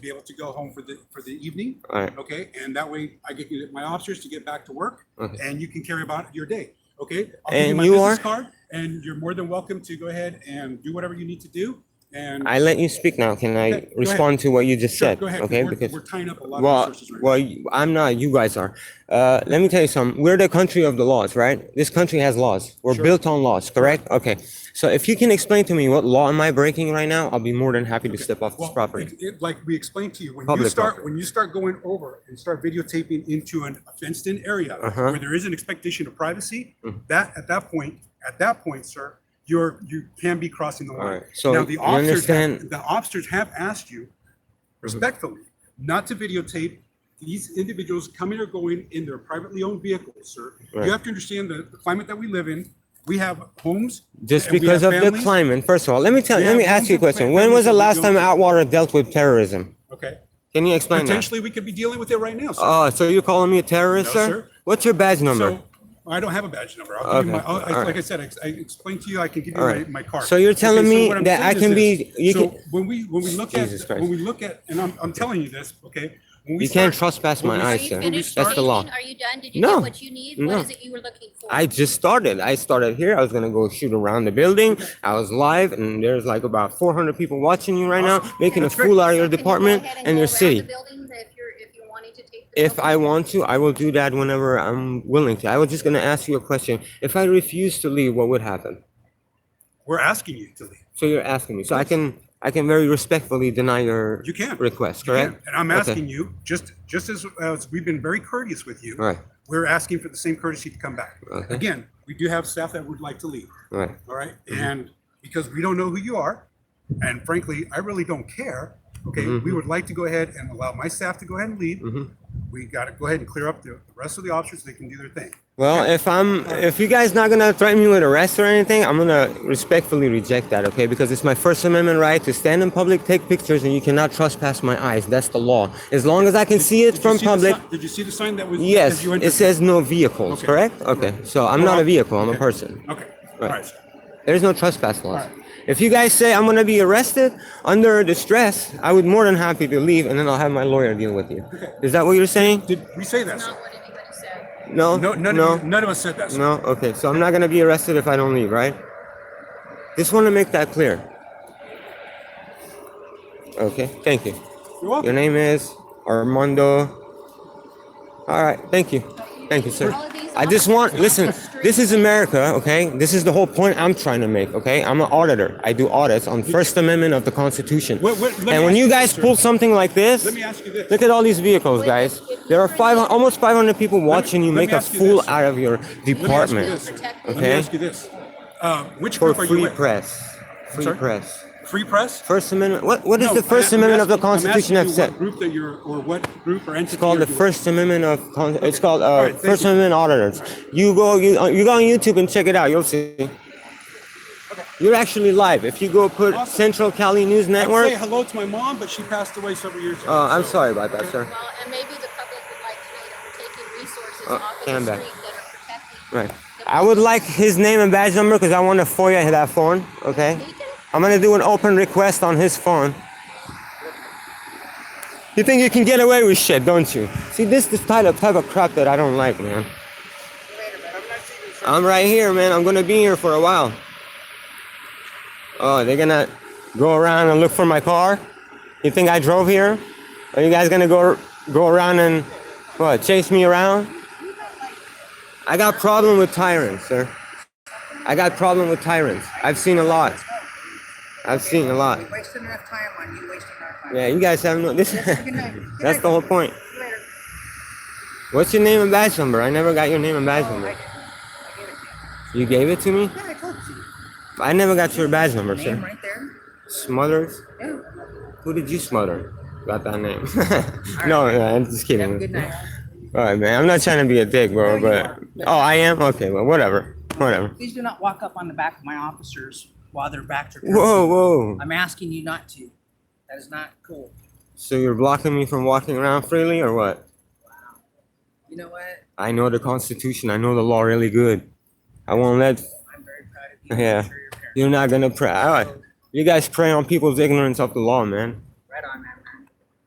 be able to go home for the, for the evening, All right. okay? And that way I get you- my officers to get back to work Okay. and you can carry about your day, okay? I'll give And my you business are? card, And you're more than welcome to go ahead and do whatever you need to do and. I let you speak now. Can Okay, go I ahead. respond to what you just Sure, said? go ahead, Okay, we're- because, We're tying up a lot of well, resources right now. well, you- I'm not, you guys are. Uh, let me tell you something. We're the country of the laws, right? This country has laws. We're Sure. built on laws, correct? Okay. So if you can explain to me what law am I breaking right now, I'll be more than happy to step off this Well, property. it- it- Like we explained to you, when you Public start, property. when you start going over and start videotaping into an fenced-in area Uh-huh. where there is an expectation of privacy, Mhm. that, at that point, at that point, sir, you're, you can be crossing the All right. line. So uh, Now, you the officers, understand? Mm-hmm. have- the officers have asked you respectfully not to videotape these individuals coming or going in their privately owned vehicles, sir. Right. You have to understand the the climate that we live in. We have homes. Just and we because have of the families. climate, first of all, let me tell, We let have me ask you a homes and question. When was the families last that we time don't- Atwater dealt with terrorism? Okay. Can you explain that? Potentially, we could be dealing with it right now, sir. Oh, so you're calling me a terrorist, No, sir? sir. What's your badge number? So I don't have a badge number. I'll give you my, Okay, I'll- I- alright. like I said, I, I explained to you, I can give you All my, right. my card. So you're telling so me what I'm that I saying can is be- this. you So can- when we, when we look at, Jesus Christ. when we look at, and I'm, I'm telling you this, okay? when we You can't start- trespass when my we- Are eyes, you sir. finished That's the law. speaking? Are you done? Did you No. get what you need? No. What is it you were looking for? I just started. I started here. I was gonna go shoot around the building. I was live, and there's like about 400 people watching you right now, making a That's great. fool out of your Can you go department ahead and go your around the city. building If you're, if you're wanting to take. the If I building? want to, I will do that whenever I'm willing to. I was just gonna ask you a question. If I refuse to leave, what would happen? We're asking you to leave. So you're asking me. So I can I can very respectfully deny your You can. request, You can. correct? And I'm Okay. asking you, just, just as, as we've been very courteous with you, All right, Uh-huh. we're asking for the same courtesy to come back. Okay. Again, we do have staff that would like to leave. all right. all right? Mm-hmm. And because we don't know who you are, and frankly, I really don't care, okay? Mm-hmm. We would like to go ahead and allow my staff to go ahead and leave. Mhm. We got to go ahead and clear up the the rest of the officers, they can do their thing. Well, if I'm, if you guys not gonna threaten me with arrest or anything, I'm gonna respectfully reject that, okay? Because it's my First Amendment right to stand in public, take pictures, and you cannot trespass my eyes. That's the law. As long as I can see it Did you from see the public, si- Did you see the sign that was? as yes, you it entered? says no vehicles, Okay. correct? Okay, so I'm not a vehicle, I'm a Okay. person. Okay, all Right. right, sir. There's no trespass laws. Alright. If you guys say I'm gonna be arrested under distress, I would more than happy to leave, and then I'll have my lawyer deal with you. Is that what you're saying? Did we say that, That's sir? Not what anybody said. No? No, none of, you- none of us said that, sir. No? Okay, so I'm not gonna be arrested if I don't leave, right? Just wanna make that clear. Okay, thank you. You're welcome. Your name is Armando. Alright, thank you. Thank you, sir. I just want, listen, this is America, okay? This is the whole point I'm trying to make, okay? I'm an auditor. I do audits on First Amendment of the Constitution. Wait, wait, let me And when ask you you guys this, sir. pull something like this, Let me ask you this. Look at all these vehicles, Wait, guys. if- if There are you were five, to- almost 500 people watching you let me make a ask you fool this. out of your Let me ask you department this. Let me Okay. ask you this. Uh, Which for group are you free with? press. Free sorry? press. Free press? First Amendment. What, what is No, the First I'm- I'm Amendment of the asking- I'm asking Constitution have you said? What group that you're, or what group or entity? It's called you're the with. First Amendment of. Con- It's called uh, Alright, thank First you. Amendment auditors. You go. You uh, you go on YouTube and check it out. You'll see. You're actually live. If you go put Awesome. Central Cali News I'd Network. say hello to my mom, but she passed away several years ago. Uh, I'm so- sorry about that, sir. Well, and maybe the public would like to know that we're taking resources Uh, off of stand the back. street that are protecting. Right. the I would public. like his name and badge number because I want to FOIA that phone. Okay. He can- I'm gonna do an open request on his phone. You think you can get away with shit, don't you? See, this is type of type of crap that I don't like, man. I'm right here, man. I'm gonna be here for a while. Oh, they're gonna go around and look for my car. You think I drove here? Are you guys gonna go go around and what chase me around? I got problem with tyrants, sir. I got problem with tyrants. I've seen a lot. I've seen a lot. We wasted enough time on you wasting our time. Yeah, you guys have no. This, Good night. Good that's night. the whole point. See you later. What's your name and badge number? I never got your name and badge Oh, I number. didn't. I gave it to You gave it to me. you. Yeah, I told you. I never got your badge number, Name sir. right there. Smothers. Yeah. Who did you smother? Got that name? no, no, I'm just Have a kidding. good night. All right, man. I'm not trying to be a dick, bro. No, you But oh, I am. Okay, well, whatever, whatever. Please do not walk up on the back of my officers while their backs are turned. Whoa, whoa. I'm asking you not to. That is not cool. So you're blocking me from walking around freely, or what? You know what? I know the Constitution. I know the law really good. I won't let. I'm very proud of you. I'm Yeah. sure you're a parent. You're not gonna pray. All right. You guys prey on people's ignorance of the law, man.